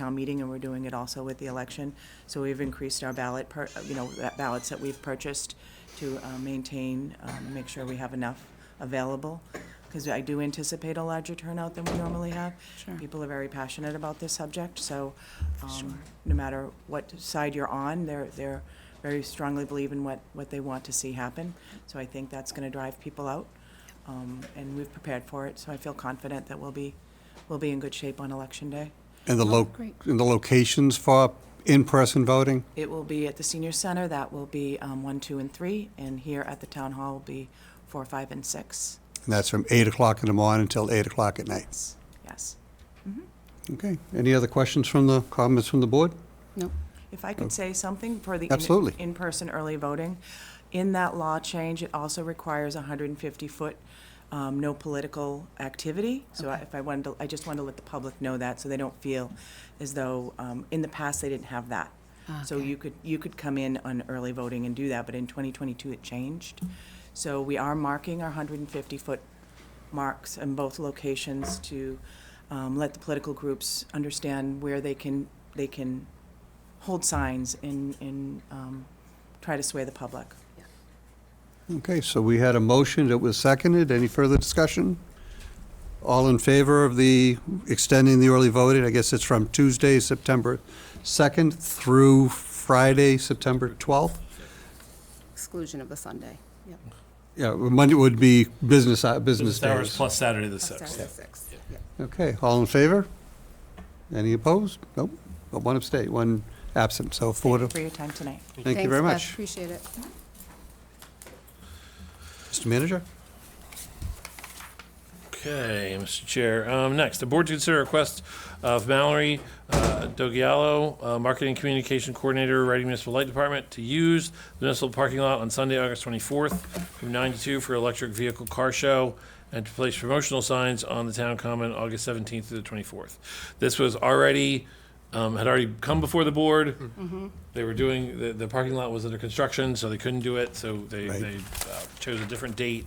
town meeting, and we're doing it also with the election. So we've increased our ballot, per- you know, that ballots that we've purchased to uh, maintain, um, make sure we have enough available, because I do anticipate a larger turnout than we normally have. Sure. People are very passionate about this subject, so um, no matter what side you're on, they're, they're very strongly believe in what, what they want to see happen. So I think that's going to drive people out, um, and we've prepared for it, so I feel confident that we'll be, we'll be in good shape on Election Day. And the lo, great. and the locations for in-person voting? It will be at the senior center, that will be um, one, two, and three, and here at the town hall will be four, five, and six. And that's from 8 o'clock in the morning until 8 o'clock at night. Yes. Okay. Any other questions from the, comments from the board? No. If I could say something for the. in- Absolutely. In-person early voting, in that law change, it also requires hundred and fifty foot, um, no political activity. So I- if I wanted to, I just wanted to let the public know that, so they don't feel as though, um, in the past, they didn't have that. Ah, So Okay. you could, you could come in on early voting and do that, but in twenty twenty-two, it changed. So we are marking our hundred and fifty foot marks in both locations to, um, let the political groups understand where they can, they can hold signs and, and um, try to sway the public. Okay, so we had a motion that was seconded. Any further discussion? All in favor of the extending the early voting? I guess it's from Tuesday, September 2nd through Friday, September 12th? Exclusion of the Sunday. Yep. Yeah, Monday would be business, hou- business Business hours days. plus Saturday the Plus Saturday, 6th. six. Yep. Okay, all in favor? Any opposed? Nope, but one abstain, one absent, so four to, For your time tonight. thank you Thanks, very Beth. much. Appreciate it. Mr. Manager? Okay, Mr. Chair. Um, Next, the board to consider request of Mallory uh, Dogiello, uh, Marketing Communication Coordinator, Reading Municipal Light Department, to use the municipal parking lot on Sunday, August 24th from 9 to 2 for electric vehicle car show and to place promotional signs on the town common August 17th through the 24th. This was already, um, had already come before the board. Mm-hmm. They were doing, the, the parking lot was under construction, so they couldn't do it, so they, Right. they uh, chose a different date.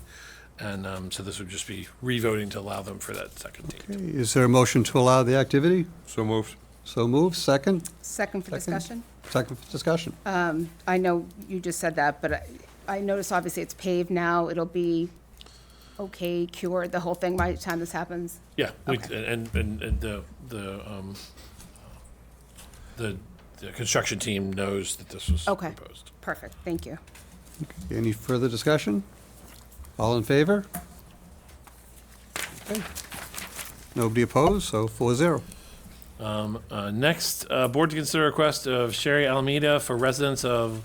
And um, so this would just be revoting to allow them for that second date. Okay, Is there a motion to allow the activity? So moved. So moved, second, Second for Second. discussion? second for discussion. Um, I know you just said that, but I- I noticed obviously it's paved now. It'll be okay, cured, the whole thing by the time this happens? Yeah, we- Okay. and, and, and the, the, um, the, the construction team knows that this was Okay. proposed. Perfect, thank you. Any further discussion? All in favor? Okay. Nobody opposed, so four zero. Um, uh, Next, uh, board to consider request of Sherry Alameda for residents of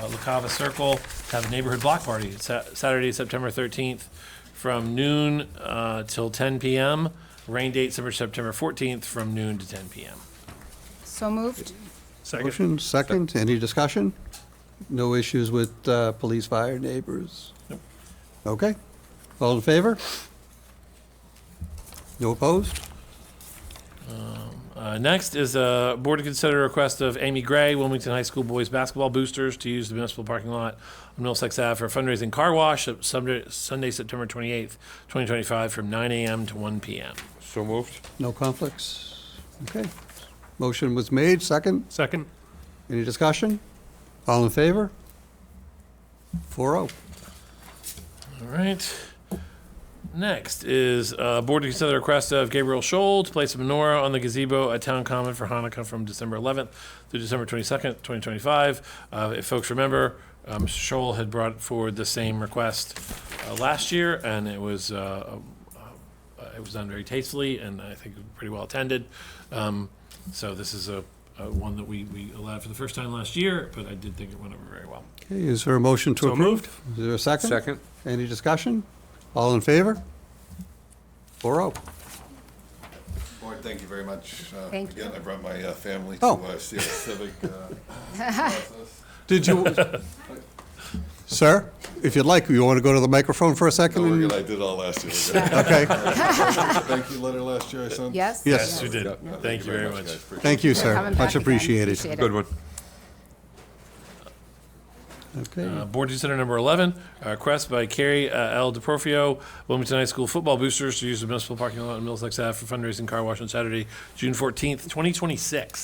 uh, La Cava Circle to have a neighborhood block party Sa- Saturday, September 13th, from noon uh, till 10 PM. Rain date, September- September 14th, from noon to 10 PM. So moved? Second. Motion, second, any discussion? No issues with uh, police, fire, neighbors? Nope. Okay, all in favor? No opposed? Uh, Next is a board to consider request of Amy Gray, Wilmington High School Boys Basketball Boosters, to use the municipal parking lot on Middlesex Ave for fundraising car wash uh, Sunday, Sunday, September 28th, 2025, from 9 AM to 1 PM. So moved. No conflicts? Okay. Motion was made, second. Second. Any discussion? All in favor? Four oh. All right. Next is uh, board to consider the request of Gabriel Scholl to place a menorah on the gazebo at Town Common for Hanukkah from December 11th through December 22nd, 2025. Uh, If folks remember, um, Mr. Scholl had brought forward the same request uh, last year, and it was, uh, uh, it was done very tastefully, and I think pretty well attended. Um, So this is a a one that we we allowed for the first time last year, but I did think it went over very well. Okay, is there a motion to So approve? Is there a second? Second. Any discussion? All in favor? Four oh. Board, thank you very much. Uh, Thank Again, you. I brought my uh, family to Oh. uh, see the civic uh, process. Did you, sir, if you'd like, you want to go to the microphone for a Don't worry, second? I did all last year. Okay, Thank you letter last year I sent. Yes? Yes. You did. Yeah, Thank you very guys. much. Appreciate it. thank you, sir. Coming back Much again. appreciated. Appreciate it. Good one. Okay, Uh, Board to consider number 11, a request by Carrie uh, L. DeProfio, Wilmington High School football boosters to use the municipal parking lot on Middlesex Ave for fundraising car wash on Saturday, June 14th, 2026.